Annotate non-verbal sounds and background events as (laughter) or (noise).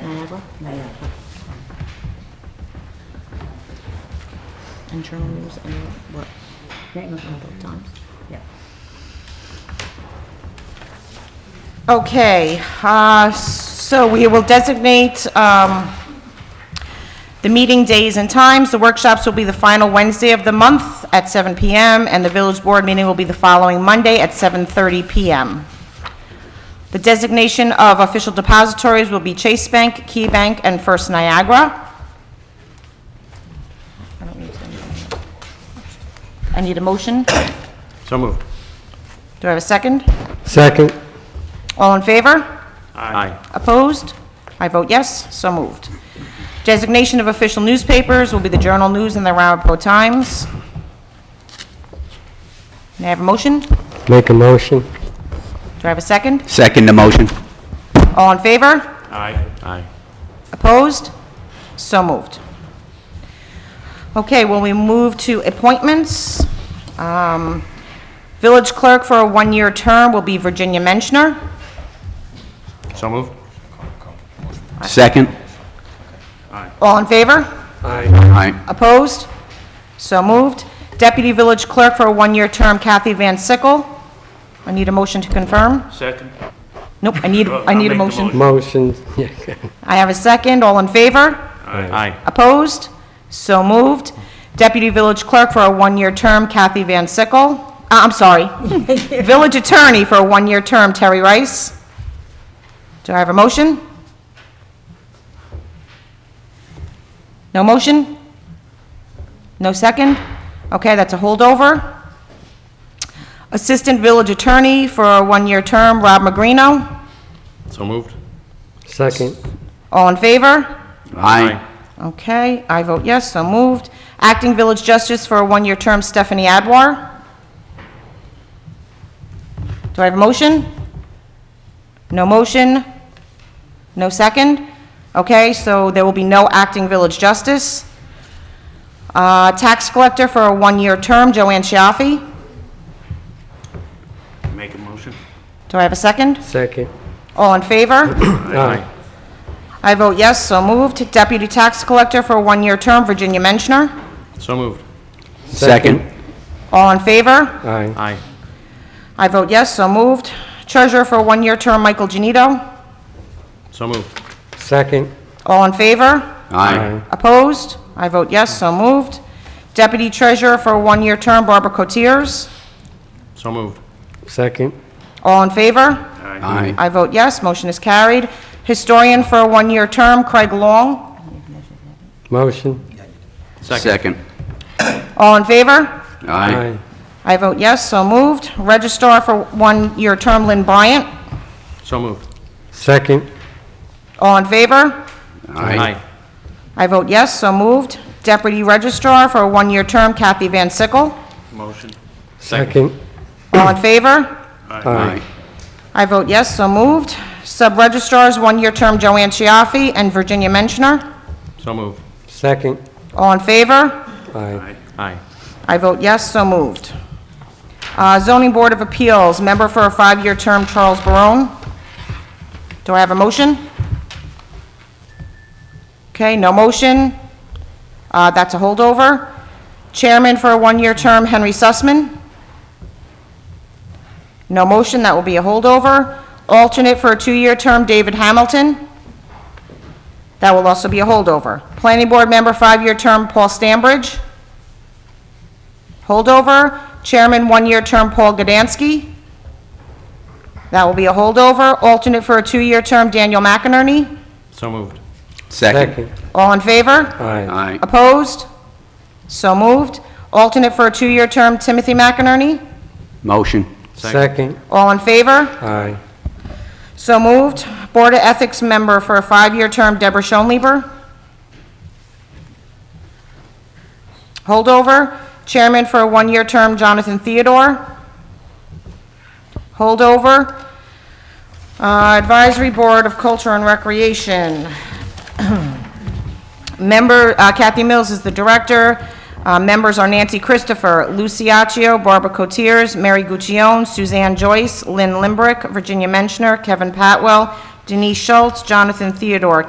Naya ba? Naya pa. Internal rules and what? That was all. Both times? Yeah. Okay, uh, so we will designate um, the meeting days and times. The workshops will be the final Wednesday of the month at 7 PM, and the village board meeting will be the following Monday at 7:30 PM. The designation of official depositories will be Chase Bank, Key Bank, and First Niagara. I don't need to- I need a motion. Do So moved. I have a second? Second. All in favor? Aye. Opposed? I vote yes, so moved. Designation of official newspapers will be the Journal News and the Rappaport Times. May I have a motion? Do Make a motion. I have a second? Second the motion. All in favor? Aye. Aye. Opposed? So moved. Okay, well, we move to appointments. Um, Village clerk for a one-year term will be Virginia Menschner. So moved. Second? All in favor? Aye. Opposed? So moved. Deputy Village Clerk for a one-year term, Kathy Van Sickle. I need a motion to confirm. Second. Nope, I need, I I'll need a make the motion. motion. Motion. I have a second. All in favor? Aye. Opposed? So moved. Deputy Village Clerk for a one-year term, Kathy Van Sickle. Uh, I'm sorry. Village Attorney for a one-year term, Terry Rice. Do I have a motion? No motion? No second? Okay, that's a holdover. Assistant Village Attorney for a one-year term, Rob Magrino. So moved. (laughs) Second. All in favor? Aye. Okay, I vote yes, so moved. Acting Village Justice for a one-year term, Stephanie Adwar. Do I have a motion? No motion? No second? Okay, so there will be no acting Village Justice. Uh, Tax Collector for a one-year term, Joanne Chiaffi. Make a motion. Do I have a second? Second. All in favor? Aye. I vote yes, so moved. Deputy Tax Collector for a one-year term, Virginia Menschner. So moved. Second? All in favor? Aye. Aye. I vote yes, so moved. Treasurer for a one-year term, Michael Genito. So moved. Second. All in favor? Aye. Opposed? I vote yes, so moved. Deputy Treasurer for a one-year term, Barbara Cotiers. So moved. Second. All in favor? Aye. Aye. I vote yes, motion is carried. Historian for a one-year term, Craig Long. Motion. Second? All in favor? Aye. I vote yes, so moved. Registrar for one-year term, Lynn Bryant. So moved. Second. All in favor? Aye. I vote yes, so moved. Deputy Registrar for a one-year term, Kathy Van Sickle. Motion. Second. All in favor? Aye. I vote yes, so moved. Sub-registrars, one-year term Joanne Chiaffi and Virginia Menschner. So moved. Second. All in favor? Aye. Aye. I vote yes, so moved. Uh, Zoning Board of Appeals, member for a five-year term Charles Barone. Do I have a motion? Okay, no motion. Uh, That's a holdover. Chairman for a one-year term Henry Sussman. No motion, that will be a holdover. Alternate for a two-year term David Hamilton. That will also be a holdover. Planning Board member, five-year term Paul Stambridge. Holdover. Chairman, one-year term Paul Gdansky. That will be a holdover. Alternate for a two-year term Daniel McInerney. So moved. Second? Second. All in favor? Aye. Aye. Opposed? So moved. Alternate for a two-year term Timothy McInerney. Motion? Second. All in favor? Aye. So moved. Board of Ethics member for a five-year term Deborah Schoenlieber. Holdover. Chairman for a one-year term Jonathan Theodore. Holdover. Uh, Advisory Board of Culture and Recreation. Member, uh, Kathy Mills is the director. Uh, Members are Nancy Christopher, Luciaccio, Barbara Cotiers, Mary Guccione, Suzanne Joyce, Lynn Limbrick, Virginia Menschner, Kevin Patwell, Denise Schultz, Jonathan Theodore,